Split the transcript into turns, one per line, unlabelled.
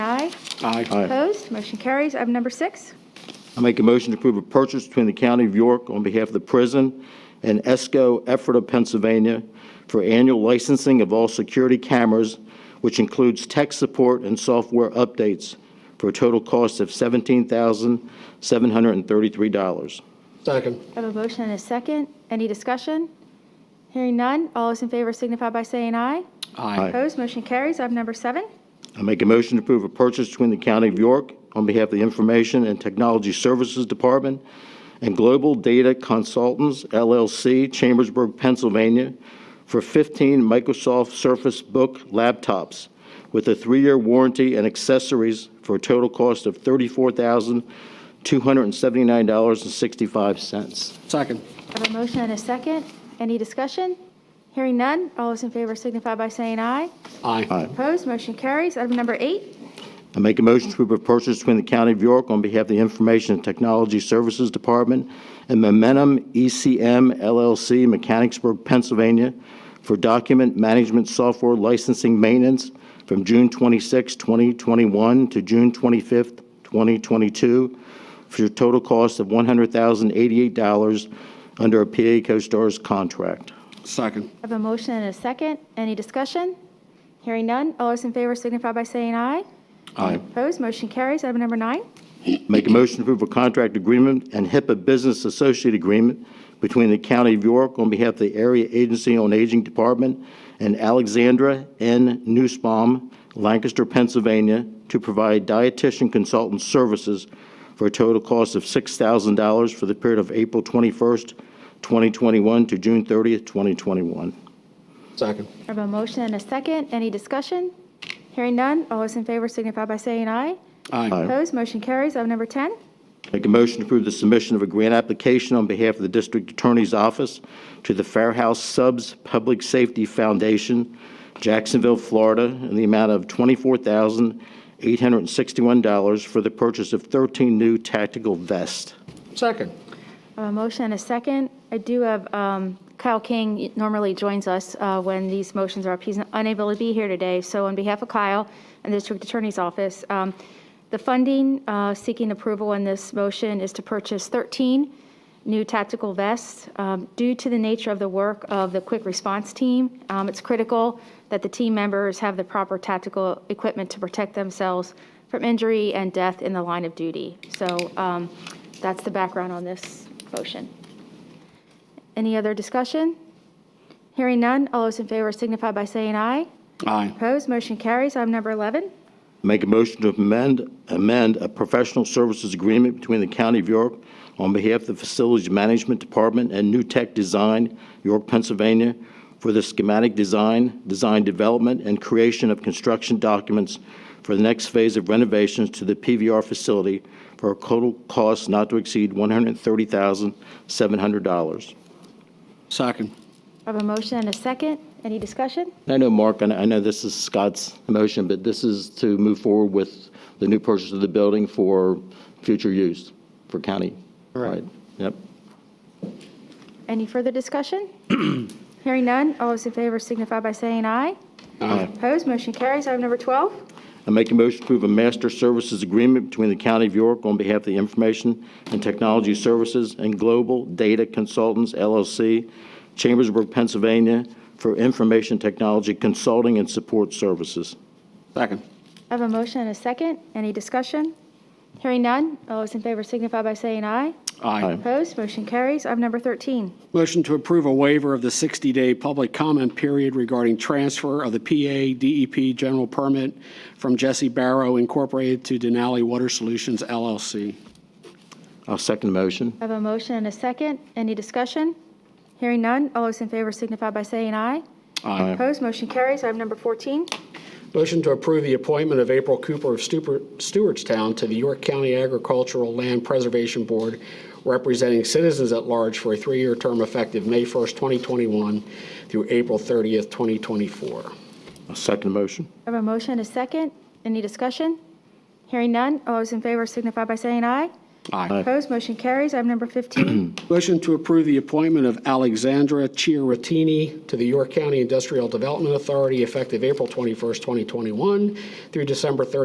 Aye.
Opposed? Motion carries. Item number six.
I make a motion to approve a purchase between the County of York on behalf of the prison and ESCO Ephrata, Pennsylvania, for annual licensing of all security cameras, which includes tech support and software updates, for a total cost of $17,733.
Second.
I have a motion and a second. Any discussion? Hearing none. All those in favor signify by saying aye.
Aye.
Opposed? Motion carries. Item number seven.
I make a motion to approve a purchase between the County of York on behalf of the Information and Technology Services Department and Global Data Consultants LLC, Chambersburg, Pennsylvania, for 15 Microsoft Surface Book laptops with a three-year warranty and accessories for a total cost of $34,279.65.
Second.
I have a motion and a second. Any discussion? Hearing none. All those in favor signify by saying aye.
Aye.
Opposed? Motion carries. Item number eight.
I make a motion to approve a purchase between the County of York on behalf of the Information and Technology Services Department and Momentum E ECM LLC, Mechanicsburg, Pennsylvania, for document management software licensing maintenance from June 26, 2021 to June 25, 2022, for a total cost of $100,088 under a PA CoStarz contract.
Second.
I have a motion and a second. Any discussion? Hearing none. All those in favor signify by saying aye.
Aye.
Opposed? Motion carries. Item number nine.
Make a motion to approve a contract agreement and HIPAA Business Associate Agreement between the County of York on behalf of the Area Agency on Aging Department and Alexandra N. Newsbaum, Lancaster, Pennsylvania, to provide dietitian consultant services for a total cost of $6,000 for the period of April 21st, 2021 to June 30th, 2021.
Second.
I have a motion and a second. Any discussion? Hearing none. All those in favor signify by saying aye.
Aye.
Opposed? Motion carries. Item number 10.
Make a motion to approve the submission of a grant application on behalf of the District Attorney's Office to the Fair House Subs Public Safety Foundation, Jacksonville, Florida, in the amount of $24,861 for the purchase of 13 new tactical vests.
Second.
I have A motion and a second. I do have, um, Kyle King normally joins us uh, when these motions are up. He's unable to be here today, so on behalf of Kyle and the District Attorney's Office, um, the funding uh, seeking approval in this motion is to purchase 13 new tactical vests. Um, Due to the nature of the work of the quick response team, um, it's critical that the team members have the proper tactical equipment to protect themselves from injury and death in the line of duty. So um, that's the background on this motion. Any other discussion? Hearing none, all those in favor signify by saying aye.
Aye.
Opposed, motion carries. Item number 11.
Make a motion to amend, amend a professional services agreement between the County of York on behalf of the Facilities Management Department and New Tech Design, York, Pennsylvania, for the schematic design, design development, and creation of construction documents for the next phase of renovations to the PVR facility for a total cost not to exceed $130,700.
Second.
I have a motion and a second. Any discussion?
I know, Mark, and I know this is Scott's motion, but this is to move forward with the new purchase of the building for future use for county.
Correct.
Right. Yep.
Any further discussion? Hearing none, all those in favor signify by saying aye.
Aye.
Opposed, motion carries. Item number 12.
I make a motion to approve a master services agreement between the County of York on behalf of the Information and Technology Services and Global Data Consultants LLC, Chambersburg, Pennsylvania, for information technology consulting and support services.
Second.
I have a motion and a second. Any discussion? Hearing none, all those in favor signify by saying aye.
Aye.
Opposed, motion carries. Item number 13.
Motion to approve a waiver of the 60-day public comment period regarding transfer of the PA DEP E general permit from Jesse Barrow Incorporated to Denali Water Solutions LLC.
I'll second the motion.
I have a motion and a second. Any discussion? Hearing none, all those in favor signify by saying aye.
Aye.
Opposed, motion carries. Item number 14.
Motion to approve the appointment of April Cooper of Stuper- Stewartstown to the York County Agricultural Land Preservation Board, representing citizens at large for a three-year term effective May 1st, 2021 through April 30th, 2024.
I'll second the motion.
I have a motion and a second. Any discussion? Hearing none, all those in favor signify by saying aye.
Aye.
Opposed, motion carries. Item number 15.
Motion to approve the appointment of Alexandra Chiaratini to the York County Industrial Development Authority effective April 21st, 2021 through December 31st,